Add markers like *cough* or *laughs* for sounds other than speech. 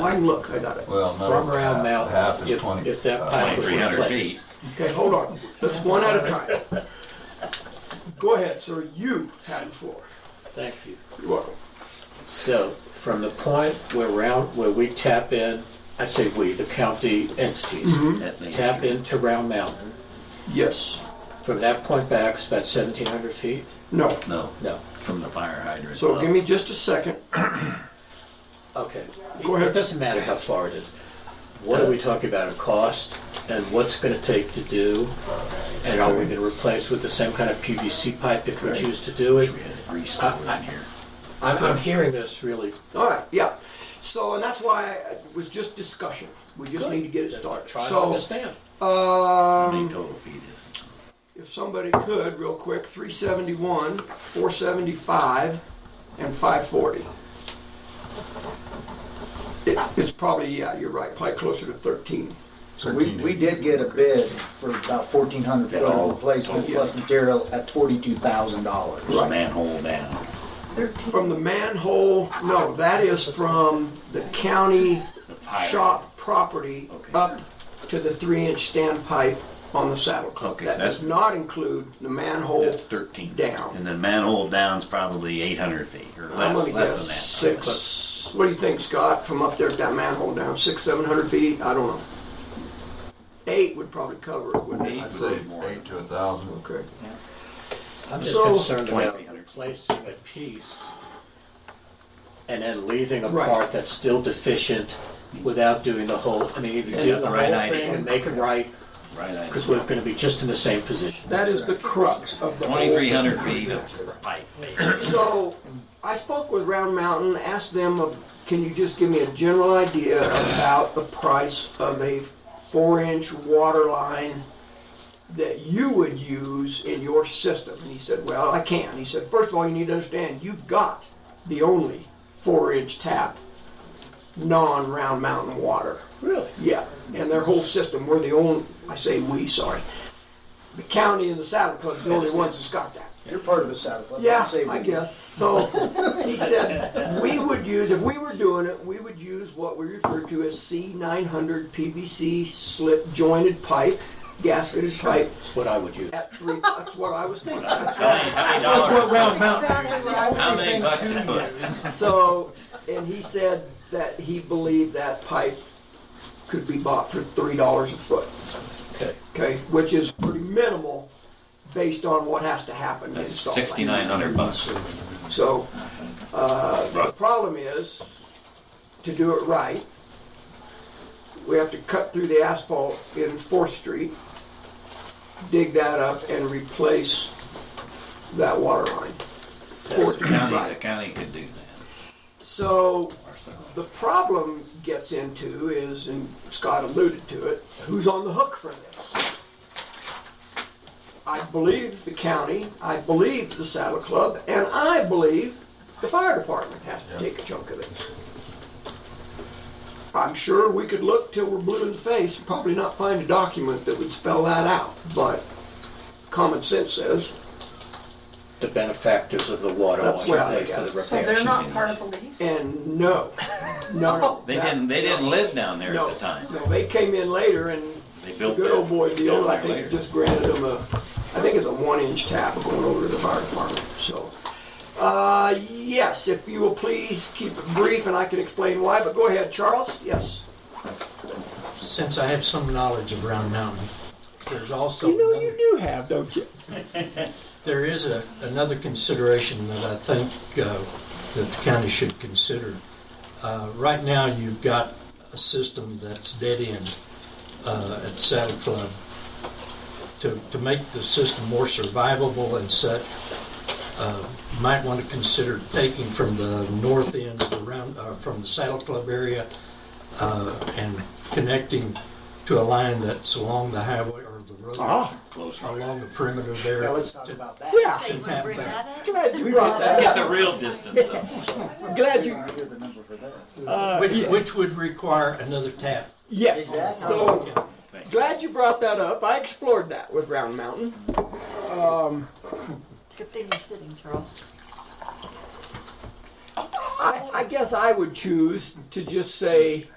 Oh, I can look, I got it. Well, no. From Round Mountain, Half is if- twenty. if that uh, pipe was 2,300 reflected. feet. Okay, hold on, let's one at a time. Go ahead, sir, you had the floor. Thank you. You're welcome. So from the point where round, where we tap in, I say we, the county entities, Mm-hmm. That means tap you're- into Round Mountain, Yes, from that point back, it's about 1,700 feet? no. No, No, from the fire hydrant. So up. give me just a second. okay. Go ahead. It doesn't matter how far it is. What are we talking about in cost and what's going to take to do? And are we going to replace with the same kind of PVC pipe if we choose to do it? Wish we had a grease over in here. I'm, I'm hearing this really, All right, yeah. So, and that's why it was just discussion. We just need to get it started. trying to understand. So, um, Big total feet is. if somebody could, real quick, 371, 475, and 540. It- It's probably, yeah, you're right, probably closer to 13. We, 13. we did get a bid for about fourteen hundred That foot of all- replacement plus material at forty-two thousand dollars. There's a manhole down. From the manhole, no, that is from the county pilot. shop property Okay. up to the three-inch standpipe on the saddle club. Okay, That so that's- does not include the manhole That's 13. down. And then manhole down's probably 800 feet or I'm less, gonna less than guess that. six, what do you think, Scott, from up there at that manhole down, six, seven hundred feet? I don't know. Eight would probably cover it, wouldn't Eight it? I'd I'd say say. more. Eight to a thousand. Okay. I'm just So- concerned about 2300. replacing a piece and then leaving a Right. part that's still deficient without doing the whole, I mean, either And do the the right whole idea. thing and make it right, Right, I because we're gonna be just in the same position. That is the crux of the whole. 2,300 feet of pipe, basically. So, I spoke with Round Mountain, asked them, of, can you just give me a general idea about the price of a four-inch water line that you would use in your system? And he said, well, I can. He said, first of all, you need to understand, you've got the only four-inch tap, non-Round Mountain water. Really? Yeah, and their whole system, we're the only, I say we, sorry. The county and the Saddle Club's the only ones that's got that. You're part of the South. let me Yeah, say I we- guess. So he said, we would use, if we were doing it, we would use what we refer to as C900 PVC slip jointed pipe, gasketed pipe That's what I would use. at three, that's what I was thinking. That's what Round How many Everything bucks to a foot? So, and he said that he believed that pipe could be bought for $3 a foot, Okay. okay? Which is pretty minimal based on what has to happen. to That's install that. 6,900 bucks. So, uh, the problem is, to do it right, we have to cut through the asphalt in Fourth Street, dig that up and replace that water line. Fourth The Street, county, the right. county could do that. So, ourselves. the problem gets into is, and Scott alluded to it, who's on the hook for this? I believe the county, I believe the Saddle Club, and I believe the fire department has to take a chunk of it. I'm sure we could look till we're blue in the face and probably not find a document that would spell that out, but common sense says, The benefactors of the water That's want what to I pay for the got. So repairs. they're not part of the lease? and no, no. *laughs* They that- didn't, they didn't live down there No, at the time. No, they came in later and They the built good old that boy down deal, I there think, later. just granted them a, I think it's a one inch tap going over to the fire department, so. Uh, yes, if you will please keep it brief and I can explain why, but go ahead, Charles, yes. Since I have some knowledge of Round Mountain, there's also, You know another- you do have, don't you? *laughs* there is a, another consideration that I think uh, that the county should consider. Uh, Right now, you've got a system that's dead end uh, at Saddle Club. To, to make the system more survivable and such, uh, you might want to consider taking from the north end of the round, uh, from the Saddle Club area uh, and connecting to a line that's along the highway or the road, Closer. along the perimeter there. Now, let's talk about that. Yeah, Say, we bring that up? glad you brought Let's get that the real distance up. up. Glad We you, uh, don't hear the number for this. Which, which would require another tap. yes. Exactly. So, glad you brought that up. I explored that with Round Mountain. Good thing you're sitting, Charles. I, I guess I would choose to just say